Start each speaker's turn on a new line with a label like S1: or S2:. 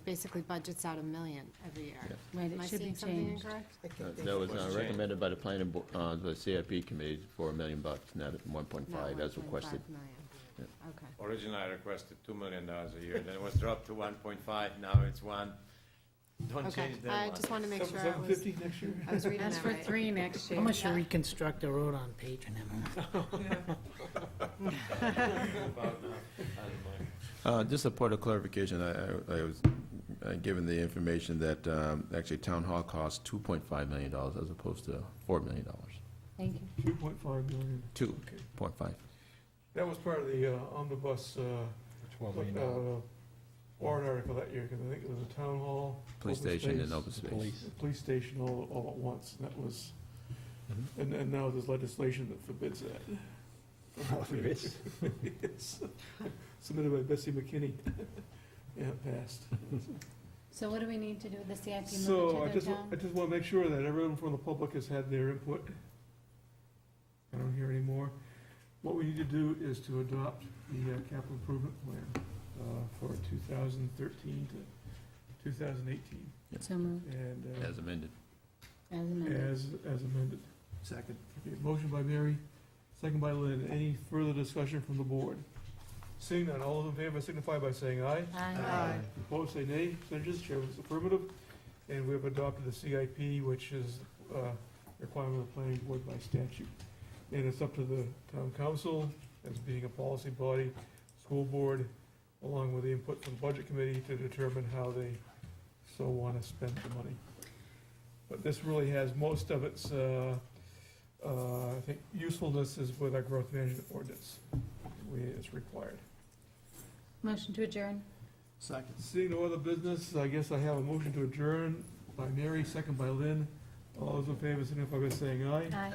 S1: basically budgets out a million every year.
S2: Right, it
S1: Am I
S2: should be
S1: seeing something
S2: changed.
S1: incorrect?
S3: That was uh, recommended by the planning, bo- uh, the CIP committee for a million bucks, not one point
S1: No,
S3: five, as requested.
S1: 1.5 million. Okay.
S4: Originally, I requested two million dollars a year, then it was dropped to one point five, now it's one. Don't
S1: Okay,
S4: change
S1: I
S4: that
S1: just
S4: one.
S1: want to make sure I
S5: Seven
S1: was,
S5: fifty next year?
S1: I was reading
S2: That's
S1: that
S2: for
S1: right.
S2: three next year.
S6: How much to reconstruct a road on Patriot, Emma?
S7: Uh, Just a point of clarification, I I- I was uh, given the information that um, actually town hall costs $2.5 million as opposed to $4 million.
S2: Thank you.
S5: Two point five million.
S7: 2.5.
S5: That was part of the uh, omnibus, uh,
S8: Twelve million dollars.
S5: uh, warrant article that year, because I think it was a town hall.
S7: Police
S5: open
S7: station and
S5: space,
S7: open space.
S8: Police.
S5: a Police station all, all at once, and that was,
S7: Mhm.
S5: and, and now there's legislation that forbids that.
S8: Oh, there is?
S5: Yes. Submitted by Bessie McKinney. Yeah, it passed.
S2: So what do we need to do with the CIP?
S5: So I
S2: Move it to
S5: just,
S2: the
S5: wa- I
S2: town?
S5: just want to make sure that everyone from the public has had their input. I don't hear any more. What we need to do is to adopt the uh, capital improvement plan uh, for 2013 to 2018
S2: So moved,
S5: and uh,
S7: As amended.
S2: as amended.
S5: as, as amended. Second. Okay, motion by Mary, second by Lynn. Any further discussion from the board? Seeing none, all those in favor signify by saying aye.
S2: Aye.
S5: Opposed, say nay. Abstentions, chair votes affirmative. And we have adopted the CIP, which is a requirement of the planning board by statute. And it's up to the town council, as being a policy body, school board, along with the input from the budget committee to determine how they so want to spend the money. But this really has most of its, uh, uh, I think, usefulness is with our growth management ordinance. We- It's required.
S2: Motion to adjourn.
S8: Second.
S5: Seeing no other business, I guess I have a motion to adjourn by Mary, second by Lynn. All those in favor signify by saying aye.
S2: Aye.